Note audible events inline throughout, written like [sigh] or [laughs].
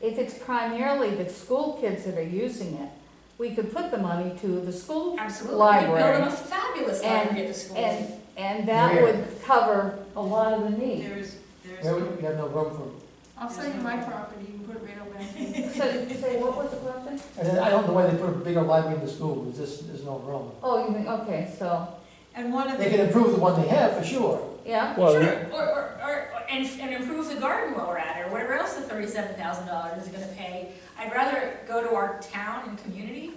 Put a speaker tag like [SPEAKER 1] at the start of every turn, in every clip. [SPEAKER 1] if it's primarily the school kids that are using it, we could put the money to the school
[SPEAKER 2] Absolutely. We could build
[SPEAKER 1] library.
[SPEAKER 2] a most fabulous library at the school.
[SPEAKER 1] And, and that
[SPEAKER 3] Where?
[SPEAKER 1] would cover a lot of the need.
[SPEAKER 4] There's,
[SPEAKER 3] There we
[SPEAKER 4] there's,
[SPEAKER 3] we have no room for
[SPEAKER 5] I'll sell you my property, you can put it right over there.
[SPEAKER 1] So, say, what was the question?
[SPEAKER 3] And then I don't know why they put a bigger library in the school, there's just, there's no room.
[SPEAKER 1] Oh, you mean, okay, so,
[SPEAKER 4] and one of
[SPEAKER 3] They can
[SPEAKER 4] the,
[SPEAKER 3] improve the one they have, for sure.
[SPEAKER 1] yeah,
[SPEAKER 2] Sure,
[SPEAKER 6] Well,
[SPEAKER 2] or,
[SPEAKER 6] the-
[SPEAKER 2] or, or, or- and, and improve the garden while we're at it, or whatever else the thirty-seven thousand dollars is gonna pay. I'd rather go to our town and community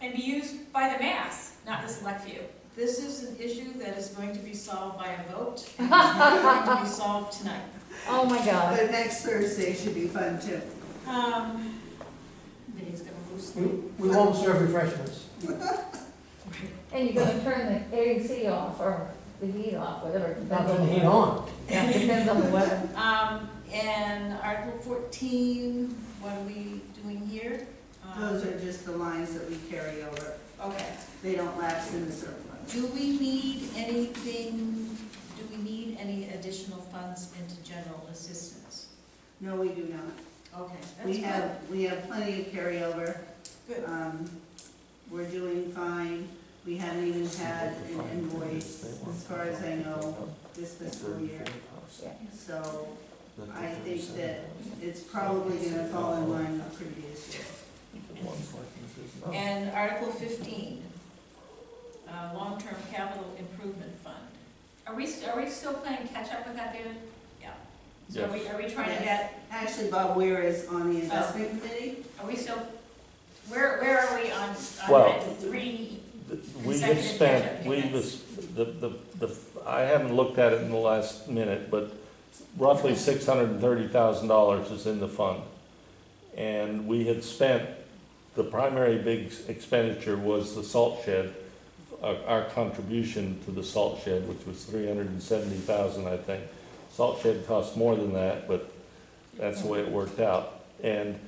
[SPEAKER 2] and be used by the mass, not the select few.
[SPEAKER 4] this is an issue that is going to be solved by
[SPEAKER 5] [laughs]
[SPEAKER 4] a vote, and it's not going to be solved tonight.
[SPEAKER 1] oh my God.
[SPEAKER 7] But next Thursday should be fun too.
[SPEAKER 4] Um,
[SPEAKER 2] Vinny's gonna lose.
[SPEAKER 3] We, we won't serve refreshments.
[SPEAKER 1] And you're gonna turn the AC off or the heat off, whatever. it
[SPEAKER 3] Not
[SPEAKER 1] depends
[SPEAKER 3] turn
[SPEAKER 1] on
[SPEAKER 3] the heat on.
[SPEAKER 1] Yeah, depends on the weather.
[SPEAKER 4] um, and Article fourteen, what are we doing here? Um,
[SPEAKER 7] Those are just the lines that we carry over.
[SPEAKER 4] Okay,
[SPEAKER 7] They don't lapse in the surplus.
[SPEAKER 4] do we need anything, do we need any additional funds into general assistance?
[SPEAKER 7] No, we do not.
[SPEAKER 4] Okay,
[SPEAKER 7] We
[SPEAKER 4] that's
[SPEAKER 7] have, we have plenty of carryover.
[SPEAKER 4] Good.
[SPEAKER 7] Um, We're doing fine. We haven't even had an invoice, as far as I know, this fiscal year. So I think that it's probably gonna fall in line with previous year.
[SPEAKER 4] good. And Article fifteen, uh, long-term capital improvement fund.
[SPEAKER 2] Are we, st- are we still playing catch-up with that, David?
[SPEAKER 4] Yeah.
[SPEAKER 2] So are we, are we trying to
[SPEAKER 7] Yes.
[SPEAKER 2] get,
[SPEAKER 7] Actually, Bob Weir is on the investment committee.
[SPEAKER 2] are we still, where, where are we on, on
[SPEAKER 6] Well-
[SPEAKER 2] that three?
[SPEAKER 6] We've
[SPEAKER 2] Consecutive
[SPEAKER 6] spent,
[SPEAKER 2] catch-up
[SPEAKER 6] we've,
[SPEAKER 2] payments.
[SPEAKER 6] the, the, the, I haven't looked at it in the last minute, but roughly six hundred and thirty thousand dollars is in the fund. And we had spent, the primary big expenditure was the salt shed, our, our contribution to the salt shed, which was three hundred and seventy thousand, I think. Salt shed costs more than that, but that's the way it worked out. And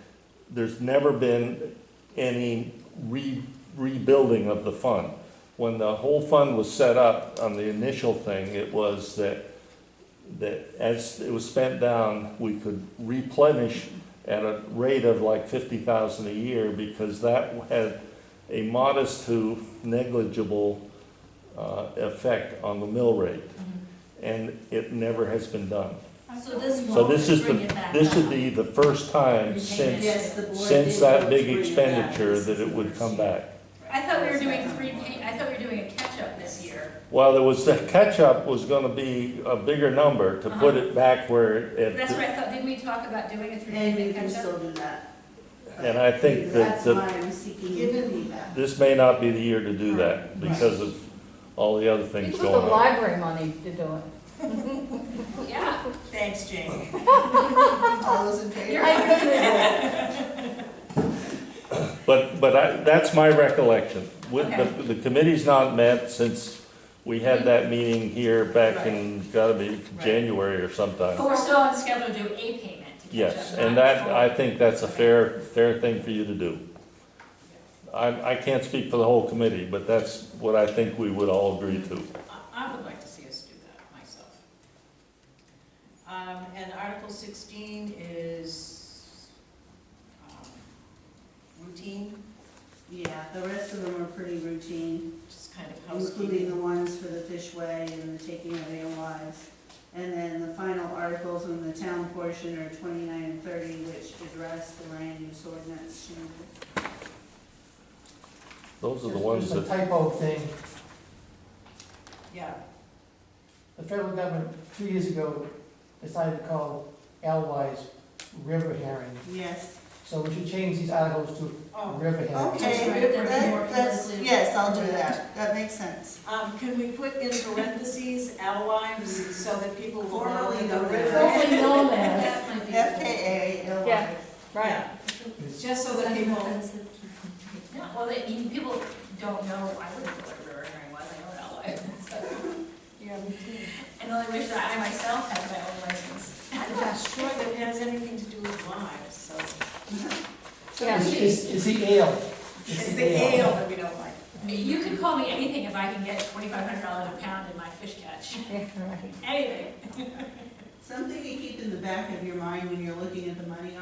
[SPEAKER 6] there's never been any re, rebuilding of the fund. When the whole fund was set up on the initial thing, it was that, that as it was spent down, we could replenish at a rate of like fifty thousand a year because that had a modest to negligible, uh, effect on the mill rate. And it never has been done.
[SPEAKER 2] So this
[SPEAKER 6] So
[SPEAKER 2] won't
[SPEAKER 6] this is
[SPEAKER 2] bring
[SPEAKER 6] the-
[SPEAKER 2] it back
[SPEAKER 6] This
[SPEAKER 2] up.
[SPEAKER 6] would be the first time
[SPEAKER 2] Repayment.
[SPEAKER 4] Oh.
[SPEAKER 6] since
[SPEAKER 7] Yes, the board
[SPEAKER 6] since
[SPEAKER 7] did
[SPEAKER 6] that
[SPEAKER 7] vote
[SPEAKER 6] big
[SPEAKER 7] to bring it back.
[SPEAKER 6] expenditure
[SPEAKER 7] This
[SPEAKER 6] that
[SPEAKER 7] is
[SPEAKER 6] it
[SPEAKER 7] the
[SPEAKER 6] would
[SPEAKER 7] first
[SPEAKER 6] come
[SPEAKER 7] year.
[SPEAKER 6] back.
[SPEAKER 2] I thought we were doing
[SPEAKER 7] Second
[SPEAKER 2] three,
[SPEAKER 7] one.
[SPEAKER 2] pay- I thought we were doing a catch-up this year.
[SPEAKER 6] Well, there was, the catch-up was gonna be a bigger number to put it back where
[SPEAKER 2] Uh-huh. That's what
[SPEAKER 6] it,
[SPEAKER 2] I thought, didn't we talk about doing a three
[SPEAKER 7] And we
[SPEAKER 2] pay
[SPEAKER 7] can
[SPEAKER 2] catch-up?
[SPEAKER 7] still do that.
[SPEAKER 6] and I think that,
[SPEAKER 7] That's why
[SPEAKER 6] that
[SPEAKER 7] I'm seeking
[SPEAKER 4] Given-
[SPEAKER 7] feedback.
[SPEAKER 6] this may not be the year to do that because of all the other
[SPEAKER 1] You
[SPEAKER 6] things
[SPEAKER 1] put the
[SPEAKER 6] going on.
[SPEAKER 1] library money to do it.
[SPEAKER 2] Yeah,
[SPEAKER 4] Thanks, Jane.
[SPEAKER 7] All those in favor?
[SPEAKER 6] But, but I, that's my recollection. With,
[SPEAKER 2] Okay. Mm-hmm.
[SPEAKER 6] the, the committee's not met since we had that meeting here back in, gotta be January or sometime.
[SPEAKER 2] but we're still on schedule to do a payment to catch up.
[SPEAKER 6] Yes,
[SPEAKER 2] not
[SPEAKER 6] and that,
[SPEAKER 2] full.
[SPEAKER 6] I think that's a fair, fair thing for you to do. I, I can't speak for the whole committee, but that's what I think we would all agree to.
[SPEAKER 4] I, I would like to see us do that myself. Um, and Article sixteen is, um, routine,
[SPEAKER 7] Yeah, the rest of them are pretty routine,
[SPEAKER 4] just kind of
[SPEAKER 7] including the
[SPEAKER 4] housekeeping.
[SPEAKER 7] ones for the fishway and the taking of their lives. And then the final articles in the town portion are twenty-nine and thirty, which address the land use ordinance changes.
[SPEAKER 6] Those are the
[SPEAKER 3] There's-
[SPEAKER 6] ones
[SPEAKER 3] There's a
[SPEAKER 6] that,
[SPEAKER 3] typo thing,
[SPEAKER 4] Yeah,
[SPEAKER 3] the federal government, two years ago, decided to call Alwise river herring.
[SPEAKER 7] Yes,
[SPEAKER 3] So we should change these articles to
[SPEAKER 4] oh,
[SPEAKER 3] river herring.
[SPEAKER 7] okay, that- that's, yes, I'll do that, that makes sense.
[SPEAKER 4] um, can we put in parentheses alewives so that people will know that
[SPEAKER 7] Formerly known
[SPEAKER 4] the
[SPEAKER 7] as.
[SPEAKER 4] river?
[SPEAKER 1] Totally
[SPEAKER 2] [laughs]
[SPEAKER 1] known as,
[SPEAKER 5] That might be.
[SPEAKER 7] FKA,
[SPEAKER 1] Yeah.
[SPEAKER 7] Illinois.
[SPEAKER 1] right.
[SPEAKER 4] Yeah, Just so that people,
[SPEAKER 2] No, well, they, I mean, people don't know, I wouldn't know what a river herring was, I know what alewives is.
[SPEAKER 4] yeah, we do.
[SPEAKER 2] [laughs] And only wish that I myself had my own license.
[SPEAKER 4] I'm not sure that it has anything to do with lives, so.
[SPEAKER 1] Yeah.
[SPEAKER 3] It's, it's- it's the ale.
[SPEAKER 4] It's the ale that we don't like.
[SPEAKER 2] You could call me anything if I can get twenty-five hundred dollars a pound in my fish catch, [laughs]
[SPEAKER 1] Yeah, right.
[SPEAKER 2] anything.
[SPEAKER 7] Something to keep in the back of your mind when you're looking at the money